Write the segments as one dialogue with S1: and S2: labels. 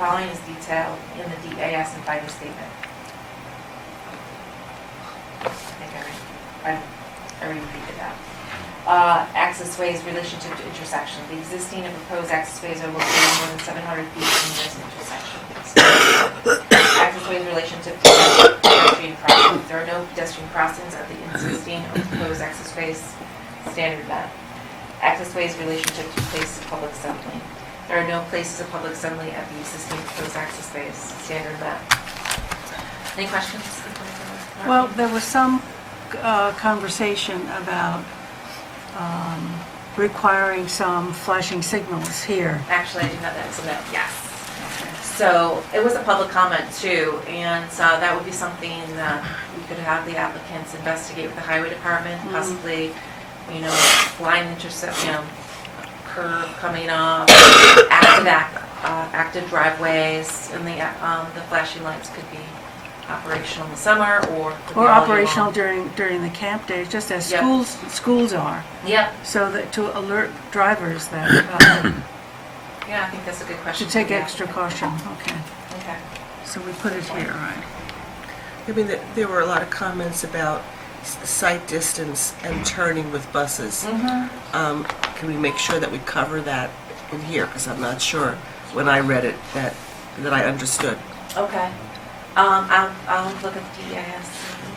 S1: following is detailed in the DAS and finding statement. I think I re- I I repeated that. Uh, Access ways relationship to intersection. The existing and proposed access ways are located more than 700 feet from this intersection. Access ways relationship to pedestrian crossings. There are no pedestrian crossings at the existing or proposed access ways standard map. Access ways relationship to places of public assembly. There are no places of public assembly at the existing proposed access ways standard map. Any questions?
S2: Well, there was some uh, conversation about um, requiring some flashing signals here.
S1: Actually, I do have that, so no, yes. So it was a public comment too, and so that would be something that we could have the applicants investigate with the highway department,
S2: Mhm.
S1: possibly, you know, blind intercept, you know, curve coming off, active, ac- uh, active driveways, and the, um, the flashing lights could be operational in the summer or. could be all year
S2: Or
S1: long.
S2: operational during, during the camp days, just as
S1: Yeah.
S2: schools, schools are,
S1: Yeah,
S2: so that, to alert drivers that,
S1: yeah, I think that's a good
S2: uh,
S1: question.
S2: to take
S1: Yeah.
S2: extra caution, okay.
S1: Okay.
S2: So we put it here, right?
S3: I mean, there- there were a lot of comments about s- sight distance and turning with buses.
S1: Mm-hmm.
S3: Um, Can we make sure that we cover that in here? Because I'm not sure when I read it that, that I understood.
S1: Okay. Um, I'll, I'll look at the DIS,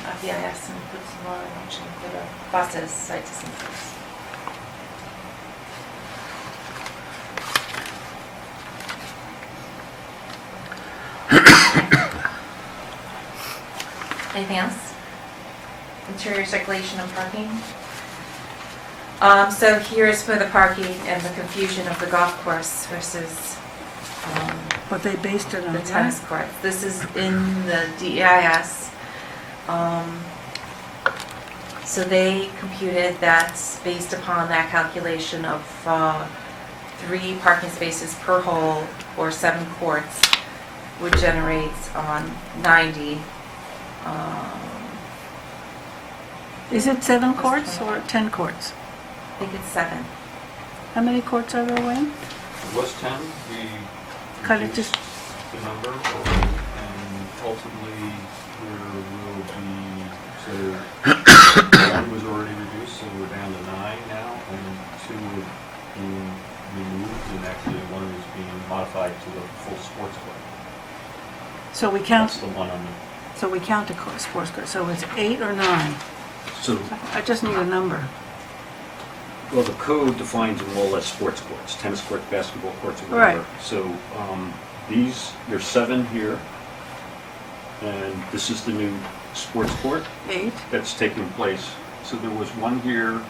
S1: uh, VIS and put some more information for the buses, site distances. Anything else? Interior circulation and parking? Um, so here is for the parking and the confusion of the golf course versus, um,
S2: But they based it on
S1: the
S2: that?
S1: tennis court. This is in the DEIS. Um, So they computed that based upon that calculation of uh, three parking spaces per hole or seven courts would generate on 90. um,
S2: Is it seven courts or 10 courts?
S1: I think it's seven.
S2: How many courts are there, Wayne?
S4: It was 10, we
S2: Cut it
S4: reduced
S2: to-
S4: the number, and ultimately, there will be, so, one was already reduced, so we're down to nine now, and two are being removed, and actually, one is being modified to a full sports club.
S2: So we
S4: That's
S2: count,
S4: the one on the,
S2: so we count the cour- sports courts, so it's eight or nine?
S5: So,
S2: I I just need a number.
S5: well, the code defines them all as sports courts, tennis court, basketball courts, or whatever.
S2: Right.
S5: So um, these, there's seven here, and this is the new sports court
S2: Eight?
S5: that's taking place. So there was one here,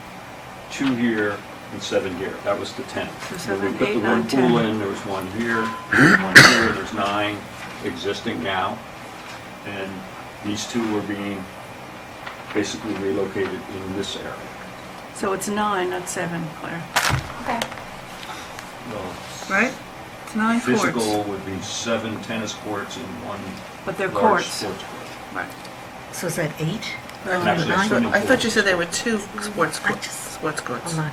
S5: two here, and seven here. That was the 10.
S2: So
S5: When
S2: seven,
S5: we put
S2: eight,
S5: the
S2: nine,
S5: one pool
S2: 10.
S5: in, there was one here, one here, there's nine existing now. And these two were being basically relocated in this area.
S2: So it's nine, not seven, Claire.
S1: Okay.
S5: Well,
S2: Right? It's nine courts.
S5: Physical would be seven tennis courts and one
S2: But they're
S5: large
S2: courts.
S5: sports court.
S2: Right.
S6: So is that eight?
S5: And actually,
S6: nine?
S5: swimming
S3: I thought you
S5: pools.
S3: said there were two sports
S6: I
S3: courts,
S6: just-
S3: sports courts.
S6: Hold on.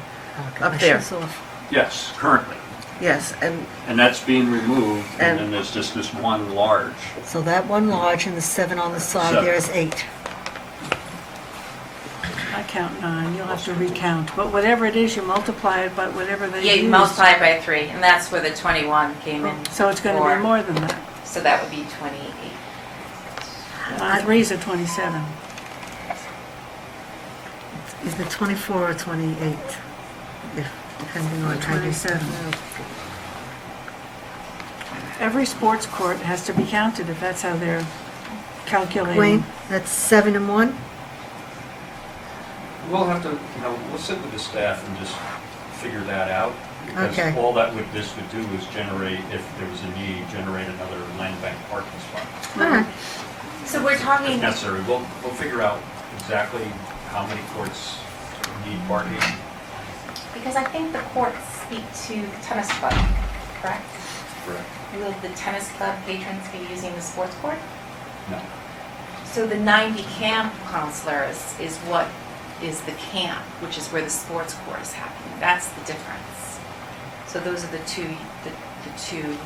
S6: Okay,
S3: Up
S6: my
S3: there.
S6: shoe's off.
S5: Yes, currently.
S3: Yes, and
S5: And that's being removed, and
S3: And-
S5: then there's just this one large.
S6: So that one large and the seven on the side,
S5: Seven.
S6: there is eight.
S2: I count nine, you'll have to recount. But whatever it is, you multiply it by whatever they
S1: Yeah,
S2: used.
S1: you multiply it by three, and that's where the 21 came in.
S2: Oh, So it's going to
S1: for.
S2: be more than that.
S1: So that would be 28.
S2: Uh, Three's a 27.
S6: Is it 24 or 28? If- Depending on how you...
S2: 27. Every sports court has to be counted if that's how they're calculating.
S6: Wayne, that's seven and one?
S4: we'll have to, you know, we'll sit with the staff and just figure that out, because
S6: Okay.
S4: all that would, this would do is generate, if there was a need, generate another land bank parking spot.
S6: All right.
S1: So we're talking,
S4: If necessary, we'll, we'll figure out exactly how many courts need parking.
S1: because I think the courts speak to tennis club, correct?
S4: Correct.
S1: Will the tennis club patrons be using the sports court?
S4: No.
S1: So the 90 camp counselors is what is the camp, which is where the sports court is happening. That's the difference. So those are the two, the the two